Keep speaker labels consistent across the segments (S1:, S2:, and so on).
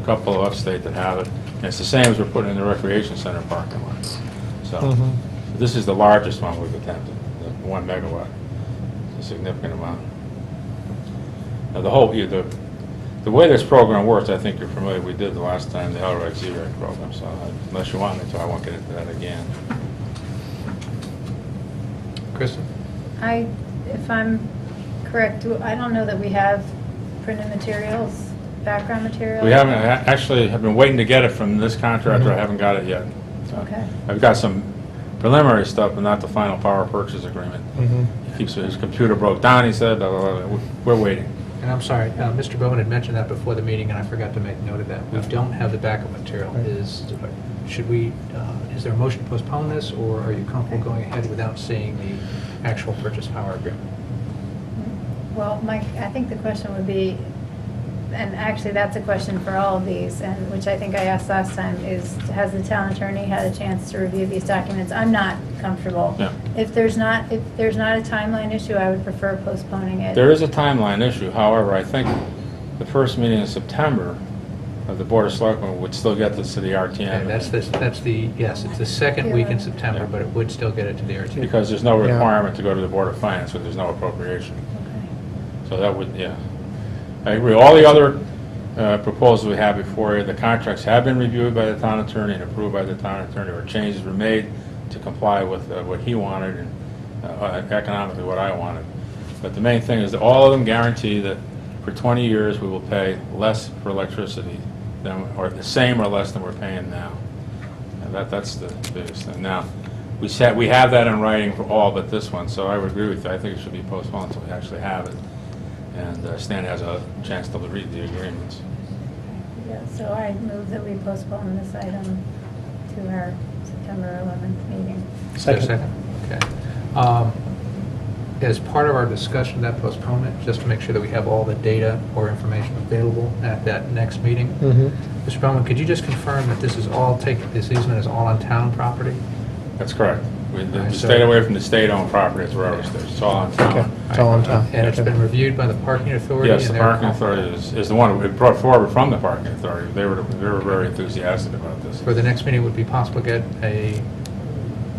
S1: couple upstate that have it, and it's the same as we're putting in the recreation center parking lots. So,
S2: Mhm.
S1: this is the largest one we've attempted, the one megawatt, It's a significant amount. Now, the whole, yeah, the, the way this program works, I think you're familiar, we did the last time, the LREC Z-Rex program, so I- unless you want me to, I won't get into that again.
S2: Kristen?
S3: I, if I'm correct, do- I don't know that we have printed materials, background material.
S1: We haven't, uh, I actually, have been waiting to get it from this contractor, I haven't got it yet. So,
S3: Okay.
S1: I've got some preliminary stuff, but not the final power purchase agreement.
S2: Mm-hmm.
S1: He keeps, his computer broke down, he said, blah, blah, blah, we're waiting.
S4: And I'm sorry, uh, Mr. Bowen had mentioned that before the meeting, and I forgot to make note of that. We
S1: Yeah.
S4: don't have the backup material.
S2: Right.
S4: Is, should we, uh, is there a motion to postpone this, or are you comfortable going ahead without seeing the actual purchase power agreement?
S3: Well, Mike, I think the question would be, and actually, that's a question for all of these, and which I think I asked last time, is has the town attorney had a chance to review these documents? I'm not comfortable.
S1: Yeah.
S3: If there's not, if there's not a timeline issue, I would prefer postponing it.
S1: There is a timeline issue, however, I think the first meeting in September of the Board of Selectmen would still get this to the RTM.
S4: Okay, That's the, that's the, yes, it's the second week in September, but it would still get it to the RTM.
S1: Because there's no
S2: Yeah.
S1: requirement to go to the Board of Finance, when there's no appropriation.
S3: Okay.
S1: So that would, yeah. I agree. All the other uh, proposals we have before you, the contracts have been reviewed by the town attorney and approved by the town attorney, or changes were made to comply with uh, what he wanted and uh, economically what I wanted. But the main thing is that all of them guarantee that for 20 years, we will pay less for electricity than, or the same or less than we're paying now. And that, that's the biggest thing. Now, we said, we have that in writing for all but this one, so I would agree with you. I think it should be postponed until we actually have it. And uh, Stan has a chance to read the agreements.
S3: Yeah, so I move that we postpone this item to our September 11th meeting.
S4: Is there a
S2: Second.
S4: Second, okay. Um, As part of our discussion of that postponement, just to make sure that we have all the data or information available at that next meeting,
S2: Mm-hmm.
S4: Mr. Bowman, could you just confirm that this is all taken, this easement is all on town property?
S1: That's correct. We we
S4: Alright, so-
S1: stayed away from the state-owned property as well as It's all on
S2: Okay,
S1: town.
S2: it's all on town.
S4: And it's
S2: Okay.
S4: been reviewed by the parking authority?
S1: Yes, the
S4: and they're
S1: parking
S4: comfortable.
S1: authority is, is the one we brought forward from the parking authority. They were, they were very enthusiastic about this.
S4: For the next meeting, would it be possible to get a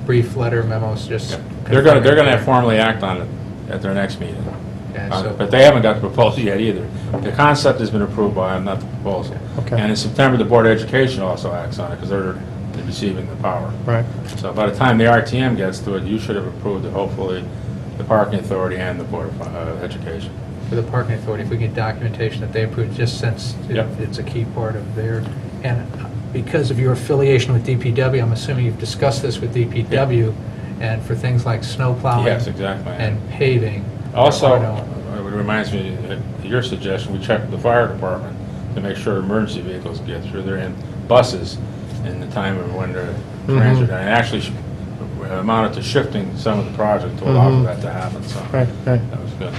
S4: brief letter memo, just?
S1: Yeah. They're gonna, they're gonna
S4: confirming-
S1: formally act on it at their next meeting.
S4: Okay,
S1: Uh,
S4: so-
S1: But they haven't got the proposal yet either. The concept has been approved by them, not the proposal.
S2: Okay.
S1: And in September, the Board of Education also acts on it, because they're they're receiving the power.
S2: Right.
S1: So by the time the RTM gets to it, you should have approved it, hopefully, the Parking Authority and the Board of uh, Education.
S4: for the parking authority, if we get documentation that they approved, just since it-
S1: Yep.
S4: it's a key part of their, and because of your affiliation with DPW, I'm assuming you've discussed this with DPW, and for things like snow plowing.
S1: Yes, exactly.
S4: And paving. there
S1: Also,
S4: are no-
S1: it reminds me, of your suggestion, we check with the fire department to make sure emergency vehicles get through there and buses in the time of when they're
S2: Mm-hmm.
S1: transit. And actually sh- amounted to shifting some of the project to allow
S2: Mhm.
S1: for that to happen, so.
S2: Right, right.
S1: That was good.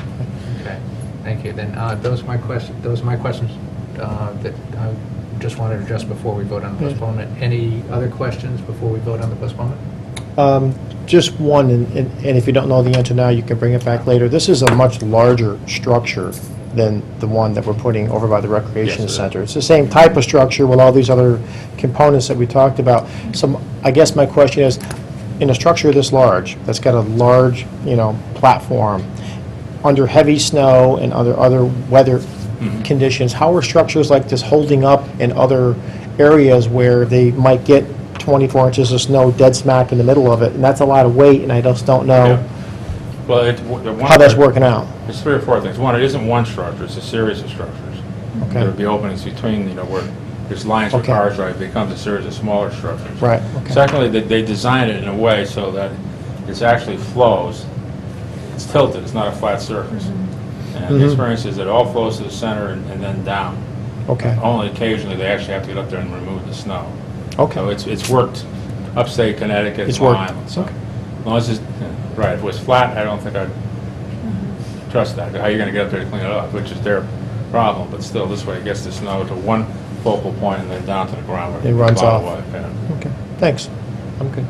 S4: Okay, thank you. Then uh, those are my questions, those are my questions uh, that I just wanted to address before we vote on the
S2: Yeah.
S4: postponement. Any other questions before we vote on the postponement?
S2: Um, Just one, and and- and if you don't know the answer now, you can bring it back later. This is a much larger structure than the one that we're putting over by the
S1: Yes, it
S2: recreation
S1: is.
S2: center. It's the same type of structure with all these other components that we talked about. So I guess my question is, in a structure this large, that's got a large, you know, platform, under heavy snow and under other weather conditions, how are structures like this holding up in other areas where they might get 24 inches of snow dead smack in the middle of it? And that's a lot of weight, and I just don't know
S1: Well, it, the one.
S2: how that's working out.
S1: There's three or four things. One, it isn't one structure, it's a series of structures.
S2: Okay.
S1: There would be openings between, you know, where there's lines where
S2: Okay.
S1: cars drive, it becomes a series of smaller structures.
S2: Right, okay.
S1: Secondly, they, they design it in a way so that it's actually flows, it's tilted, it's not a flat surface. And the
S2: Mhm.
S1: experience is that it all flows to the center and and then down.
S2: Okay,
S1: Only occasionally, they actually have to get up there and remove the snow. So
S2: okay,
S1: Oh, it's, it's worked upstate Connecticut,
S2: It's
S1: Long
S2: worked.
S1: Island, so.
S2: Okay.
S1: As long as it's, right, if it was flat, I don't think I'd trust that. How are you gonna get up there to clean it up, which is their problem, but still, this way it gets the snow to one focal point and then down to the ground where
S2: It runs
S1: plow
S2: off.
S1: away, yeah.
S2: okay, thanks, I'm good.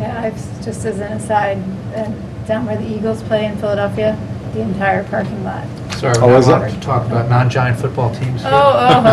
S3: Yeah, I've, just as an aside, uh, down where the Eagles play in Philadelphia, the entire parking lot.
S4: Sorry,
S2: Oh,
S4: we're not
S2: is it?
S4: allowed to talk about non-giant football teams here.
S3: Oh, oh,